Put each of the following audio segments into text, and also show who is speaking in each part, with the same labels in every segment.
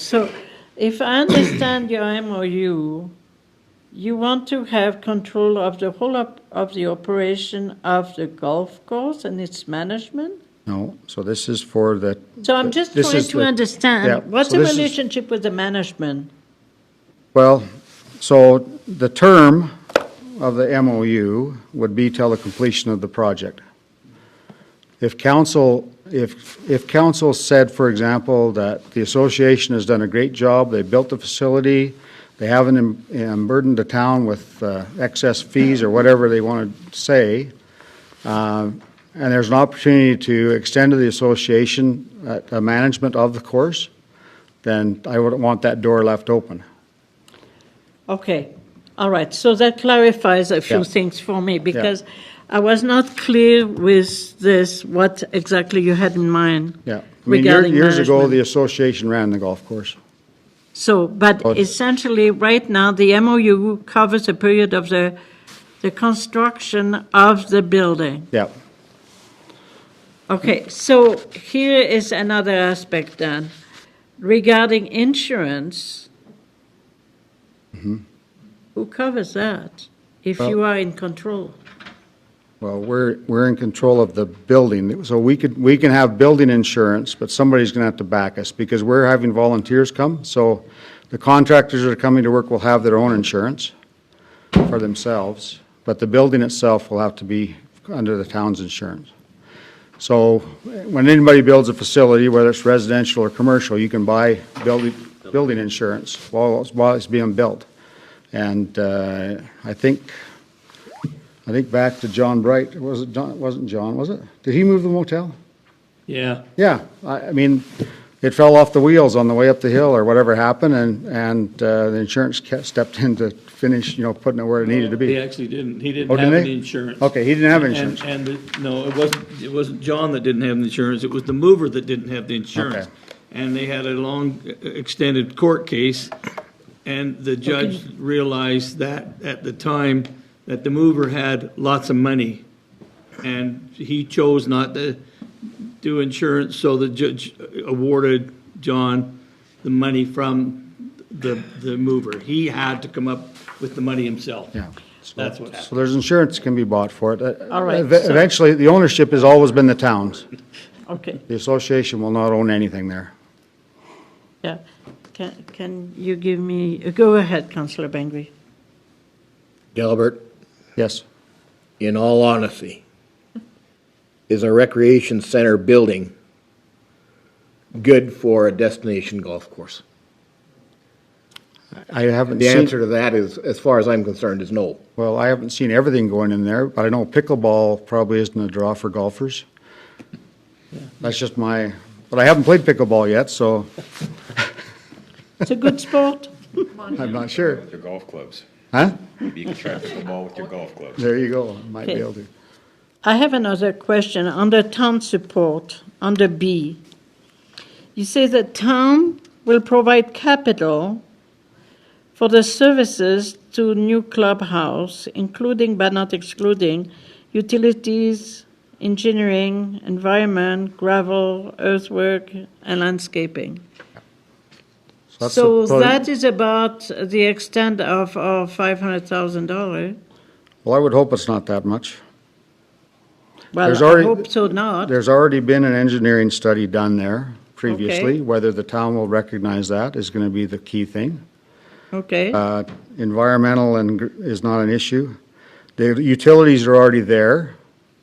Speaker 1: So if I understand your MOU, you want to have control of the whole op- of the operation of the golf course and its management?
Speaker 2: No, so this is for the.
Speaker 1: So I'm just
Speaker 2: this
Speaker 1: trying
Speaker 2: is
Speaker 1: to
Speaker 2: the-
Speaker 1: understand
Speaker 2: yeah,
Speaker 1: what's
Speaker 2: so
Speaker 1: the
Speaker 2: this is-
Speaker 1: relationship with the management?
Speaker 2: Well, so the term of the MOU would be till the completion of the project. If council, if, if council said, for example, that the association has done a great job, they built the facility, they haven't em- em- burdened the town with uh, excess fees or whatever they want to say, uh, and there's an opportunity to extend to the association uh, a management of the course, then I wouldn't want that door left open.
Speaker 1: Okay, all right, so that clarifies a few
Speaker 2: Yeah.
Speaker 1: things for me because I was not clear with this, what exactly you had in mind.
Speaker 2: Yeah. I mean, year-
Speaker 1: regarding
Speaker 2: years ago,
Speaker 1: management.
Speaker 2: the association ran the golf course.
Speaker 1: So, but
Speaker 2: But-
Speaker 1: essentially, right now, the MOU covers a period of the, the construction of the building.
Speaker 2: Yeah.
Speaker 1: Okay, so here is another aspect then. Regarding insurance, who covers that if you are in control?
Speaker 2: Well, we're, we're in control of the building. So we could, we can have building insurance, but somebody's going to have to back us because we're having volunteers come. So the contractors that are coming to work will have their own insurance for themselves, but the building itself will have to be under the town's insurance. So when anybody builds a facility, whether it's residential or commercial, you can buy building, building insurance while, it's- while it's being built. And uh, I think, I think back to John Bright, was it, John- it wasn't John, was it? Did he move the motel?
Speaker 3: Yeah,
Speaker 2: Yeah, I, I mean, it fell off the wheels on the way up the hill or whatever happened and, and uh, the insurance ca- stepped in to finish, you know, putting it where it needed to
Speaker 3: he
Speaker 2: be.
Speaker 3: actually didn't, he
Speaker 2: Oh,
Speaker 3: didn't
Speaker 2: didn't
Speaker 3: have
Speaker 2: they?
Speaker 3: any insurance.
Speaker 2: Okay, he didn't have
Speaker 3: And-
Speaker 2: insurance.
Speaker 3: And, the- no, it wasn't, it wasn't John that didn't have the insurance, it was the mover that didn't have the
Speaker 2: Okay.
Speaker 3: insurance. And they had a long, uh, extended court case, and the judge realized that, at the time, that the mover had lots of money. And he chose not to do insurance, so the judge awarded John the money from the, the mover. He had to come up with the money himself.
Speaker 2: Yeah. So-
Speaker 3: That's what happened.
Speaker 2: So there's insurance can be bought for it. Uh,
Speaker 1: All right,
Speaker 2: ev-
Speaker 1: so-
Speaker 2: Eventually, the ownership has always been the town's.
Speaker 1: Okay,
Speaker 2: The association will not own anything there.
Speaker 1: yeah. Can, can you give me, go ahead, Councillor Bengry.
Speaker 4: Delbert,
Speaker 2: Yes,
Speaker 4: in all honesty, is a recreation center building good for a destination golf course?
Speaker 2: I haven't
Speaker 4: The
Speaker 2: seen,
Speaker 4: answer to that is, as far as I'm concerned, is no.
Speaker 2: well, I haven't seen everything going in there, but I know pickleball probably isn't a draw for golfers. That's just my, but I haven't played pickleball yet, so
Speaker 1: It's a good sport.
Speaker 2: I'm not sure.
Speaker 5: With your golf clubs.
Speaker 2: Huh?
Speaker 5: You can try to hit the ball with your golf clubs.
Speaker 2: There you go, might be
Speaker 1: Okay.
Speaker 2: able to.
Speaker 1: I have another question under town support, under B. You say the town will provide capital for the services to new clubhouse, including but not excluding utilities, engineering, environment, gravel, earthwork, and landscaping.
Speaker 2: that's the
Speaker 1: So
Speaker 2: pro-
Speaker 1: that is about the extent of our $500,000.
Speaker 2: Well, I would hope it's not that much.
Speaker 1: Well,
Speaker 2: There's
Speaker 1: I
Speaker 2: already-
Speaker 1: hope so not.
Speaker 2: There's already been an engineering study done there previously.
Speaker 1: Okay.
Speaker 2: Whether the town will recognize that is going to be the key thing.
Speaker 1: Okay.
Speaker 2: Uh, Environmental and gr- is not an issue. The utilities are already there,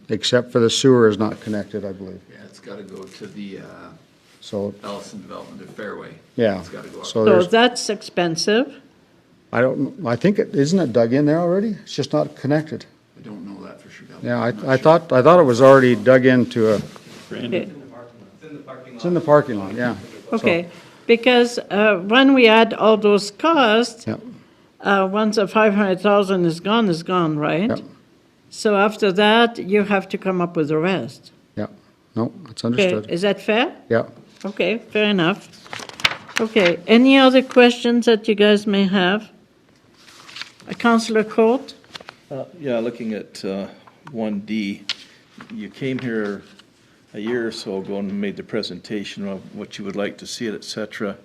Speaker 2: except for the sewer is not connected, I believe.
Speaker 6: Yeah, it's gotta go to the uh,
Speaker 2: So,
Speaker 6: Ellison Development of Fairway.
Speaker 2: yeah.
Speaker 6: It's gotta go up.
Speaker 1: So
Speaker 2: So there's,
Speaker 1: that's expensive.
Speaker 2: I don't, I think, it isn't it dug in there already? It's just not connected.
Speaker 6: I don't know that for sure. Delbert.
Speaker 2: Yeah,
Speaker 6: I'm not
Speaker 2: I, I
Speaker 6: sure.
Speaker 2: thought, I thought it was already dug into a,
Speaker 3: Brandon.
Speaker 2: it's in the parking lot, yeah.
Speaker 1: Okay, because uh, when we add all those costs,
Speaker 2: Yep.
Speaker 1: uh, once the 500,000 is gone, is gone, right?
Speaker 2: Yep.
Speaker 1: So after that, you have to come up with the rest.
Speaker 2: Yeah, no, that's
Speaker 1: Okay,
Speaker 2: understood.
Speaker 1: is that fair?
Speaker 2: Yeah.
Speaker 1: Okay, fair enough. Okay, any other questions that you guys may have? Uh, Councillor Court?
Speaker 7: Uh, Yeah, looking at uh, 1D, you came here a year or so ago and made the presentation of what you would like to see it, et cetera.